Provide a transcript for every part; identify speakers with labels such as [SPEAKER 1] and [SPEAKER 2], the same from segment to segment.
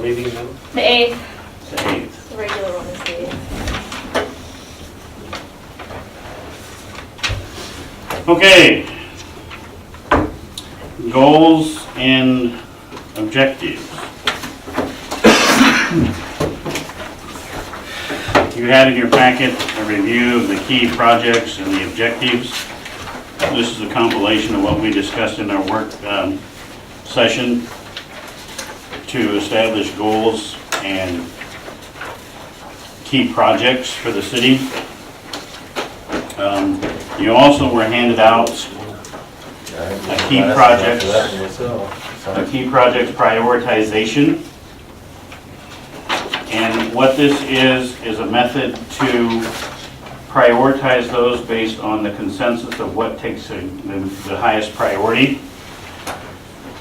[SPEAKER 1] Meeting then?
[SPEAKER 2] The 8th,
[SPEAKER 1] The 8th.
[SPEAKER 2] the regular one is the 8th.
[SPEAKER 1] Okay. Goals and objectives. You had in your packet a review of the key projects and the objectives. This is a compilation of what we discussed in our work um, session to establish goals and key projects for the city. Um, You also were handed out
[SPEAKER 3] A
[SPEAKER 1] key project. a
[SPEAKER 3] Well,
[SPEAKER 1] key project prioritization. And what this is, is a method to prioritize those based on the consensus of what takes the the highest priority.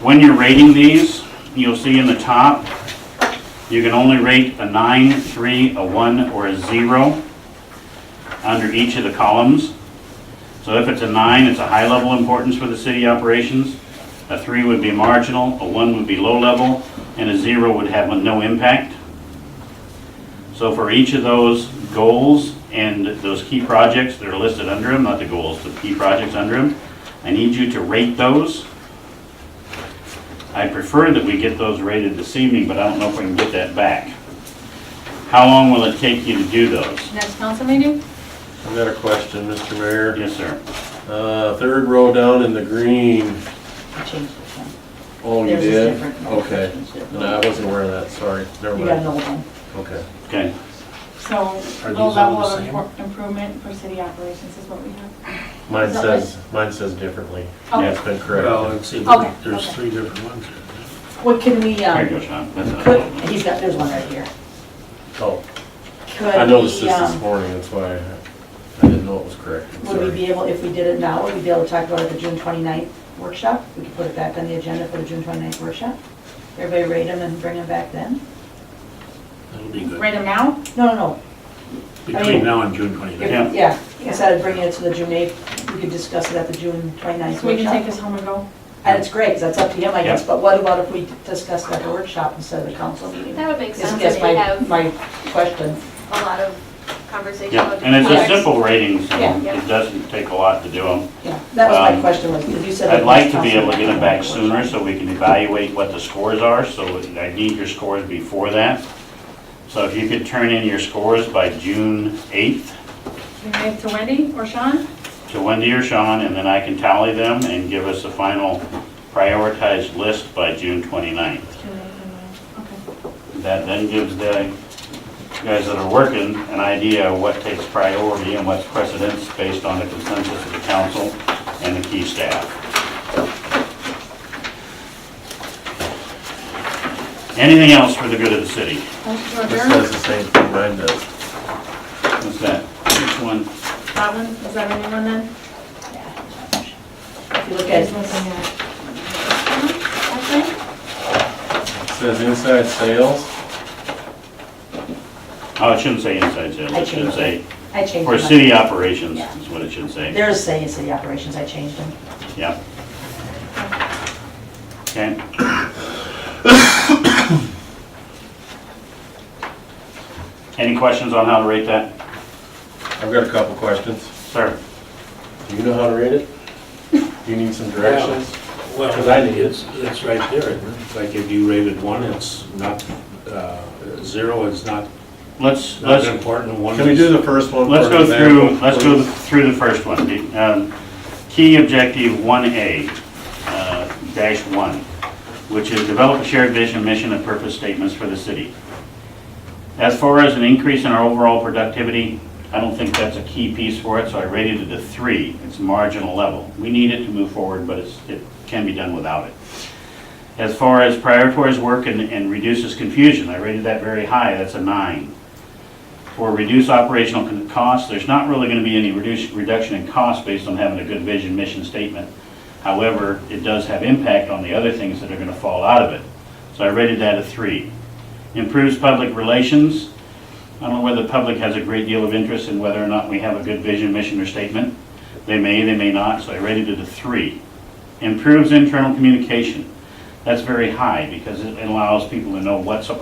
[SPEAKER 1] When you're rating these, you'll see in the top, you can only rate a nine, three, a one, or a zero under each of the columns. So if it's a nine, it's a high level importance for the city operations. A three would be marginal, a one would be low level, and a zero would have no impact. So for each of those goals and those key projects that are listed under them, not the goals, the key projects under them, I need you to rate those. I prefer that we get those rated this evening, but I don't know if we can get that back. How long will it take you to do those?
[SPEAKER 2] Next council meeting?
[SPEAKER 3] I've got a question, Mr. Mayor.
[SPEAKER 1] Yes, sir.
[SPEAKER 3] Uh, third row down in the green.
[SPEAKER 4] I changed this one.
[SPEAKER 3] Oh, you
[SPEAKER 4] Theirs is
[SPEAKER 3] did?
[SPEAKER 4] different.
[SPEAKER 3] Okay. No, I wasn't aware of that, sorry. Never
[SPEAKER 4] You got an
[SPEAKER 3] mind.
[SPEAKER 4] old one.
[SPEAKER 3] Okay.
[SPEAKER 1] Okay.
[SPEAKER 2] So,
[SPEAKER 3] Are
[SPEAKER 2] low
[SPEAKER 3] these all
[SPEAKER 2] level
[SPEAKER 3] the
[SPEAKER 2] of
[SPEAKER 3] same?
[SPEAKER 2] impor- improvement for city operations is what we have.
[SPEAKER 3] Mine
[SPEAKER 2] Is that
[SPEAKER 3] says, mine says differently.
[SPEAKER 4] Oh.
[SPEAKER 2] Okay.
[SPEAKER 3] It's been
[SPEAKER 5] Well,
[SPEAKER 3] corrected.
[SPEAKER 5] and see,
[SPEAKER 2] Okay,
[SPEAKER 5] there's
[SPEAKER 2] okay.
[SPEAKER 5] three different ones. here.
[SPEAKER 4] What can we,
[SPEAKER 1] There you
[SPEAKER 4] um,
[SPEAKER 1] go, Sean. That's not a
[SPEAKER 4] could,
[SPEAKER 1] problem.
[SPEAKER 4] he's got, there's one right here.
[SPEAKER 3] Oh,
[SPEAKER 4] Could
[SPEAKER 3] I noticed
[SPEAKER 4] we,
[SPEAKER 3] this
[SPEAKER 4] um,
[SPEAKER 3] this morning, that's why I I didn't know it was corrected,
[SPEAKER 4] Would we
[SPEAKER 3] sorry.
[SPEAKER 4] be able, if we did it now, would we be able to talk about it at the June 29th workshop? We could put it back on the agenda for the June 29th workshop? Everybody rate them and bring them back then?
[SPEAKER 5] That'll be good.
[SPEAKER 2] Rate them now?
[SPEAKER 4] No, no, no,
[SPEAKER 5] Between now and June 29th.
[SPEAKER 1] Yeah.
[SPEAKER 4] yeah, instead of bringing it to the June 8th, we could discuss it at the June 29th
[SPEAKER 2] So we can take
[SPEAKER 4] workshop.
[SPEAKER 2] this home and go?
[SPEAKER 4] And it's great, because that's up to him, I guess,
[SPEAKER 1] Yeah.
[SPEAKER 4] but what about if we discuss that at the workshop instead of the council meeting?
[SPEAKER 6] That would make
[SPEAKER 4] Is-
[SPEAKER 6] sense,
[SPEAKER 4] Is
[SPEAKER 6] and you
[SPEAKER 4] my,
[SPEAKER 6] have
[SPEAKER 4] my question.
[SPEAKER 6] a lot of conversation
[SPEAKER 1] Yeah,
[SPEAKER 6] about.
[SPEAKER 1] and it's a
[SPEAKER 6] different topics.
[SPEAKER 1] simple rating, so
[SPEAKER 4] Yeah.
[SPEAKER 1] it doesn't take a lot to do them.
[SPEAKER 4] Yeah, that was my
[SPEAKER 1] Um,
[SPEAKER 4] question, was, because you said.
[SPEAKER 1] I'd
[SPEAKER 4] that
[SPEAKER 1] like to
[SPEAKER 4] Council
[SPEAKER 1] be able to get them back
[SPEAKER 4] Member-
[SPEAKER 1] sooner so we can evaluate what the scores are, so I need your scores before that. So if you could turn in your scores by June 8th
[SPEAKER 2] Can we give it to Wendy or Sean?
[SPEAKER 1] to Wendy or Sean, and then I can tally them and give us a final prioritized list by June 29th.
[SPEAKER 2] Okay.
[SPEAKER 1] That then gives the guys that are working an idea of what takes priority and what's precedence based on the consensus of the council and the key staff. Anything else for the good of the city?
[SPEAKER 2] Motion to
[SPEAKER 3] This
[SPEAKER 2] adjourn?
[SPEAKER 3] says the same thing mine does.
[SPEAKER 1] What's that? Which one?
[SPEAKER 2] That one, is that a new one then?
[SPEAKER 4] If you look at,
[SPEAKER 2] Okay.
[SPEAKER 3] It says inside sales.
[SPEAKER 1] Oh, it shouldn't say inside sales.
[SPEAKER 4] I
[SPEAKER 1] It should
[SPEAKER 4] changed
[SPEAKER 1] say,
[SPEAKER 4] I changed
[SPEAKER 1] for
[SPEAKER 4] them.
[SPEAKER 1] city operations
[SPEAKER 4] Yeah.
[SPEAKER 1] is what it should say.
[SPEAKER 4] There's saying city operations, I changed them.
[SPEAKER 1] Yeah. Okay. Any questions on how to rate that?
[SPEAKER 3] I've got a couple questions.
[SPEAKER 1] Sir?
[SPEAKER 3] Do you know how to rate it? Do you need some directions?
[SPEAKER 5] Well, that is, it's right there, isn't it? Like if you rated one, it's not, uh, zero is not,
[SPEAKER 1] Let's,
[SPEAKER 5] not
[SPEAKER 1] let's,
[SPEAKER 5] important, one
[SPEAKER 3] Can we do
[SPEAKER 5] is.
[SPEAKER 3] the first one?
[SPEAKER 1] let's
[SPEAKER 3] for
[SPEAKER 1] go
[SPEAKER 3] example,
[SPEAKER 1] through, let's
[SPEAKER 3] please?
[SPEAKER 1] go through the first one. The, um, Key objective 1A, uh, dash 1, which is develop a shared vision, mission, and purpose statements for the city. As far as an increase in our overall productivity, I don't think that's a key piece for it, so I rated it a 3. It's marginal level. We need it to move forward, but it's, it can be done without it. As far as prioritizes work and, and reduces confusion, I rated that very high, that's a nine. For reduce operational con- costs, there's not really gonna be any reduce, reduction in cost based on having a good vision, mission statement. However, it does have impact on the other things that are gonna fall out of it. So I rated that a three. Improves public relations, I don't know whether the public has a great deal of interest in whether or not we have a good vision, mission, or statement. They may, they may not, so I rated it a three. Improves internal communication. That's very high because it allows people to know what's a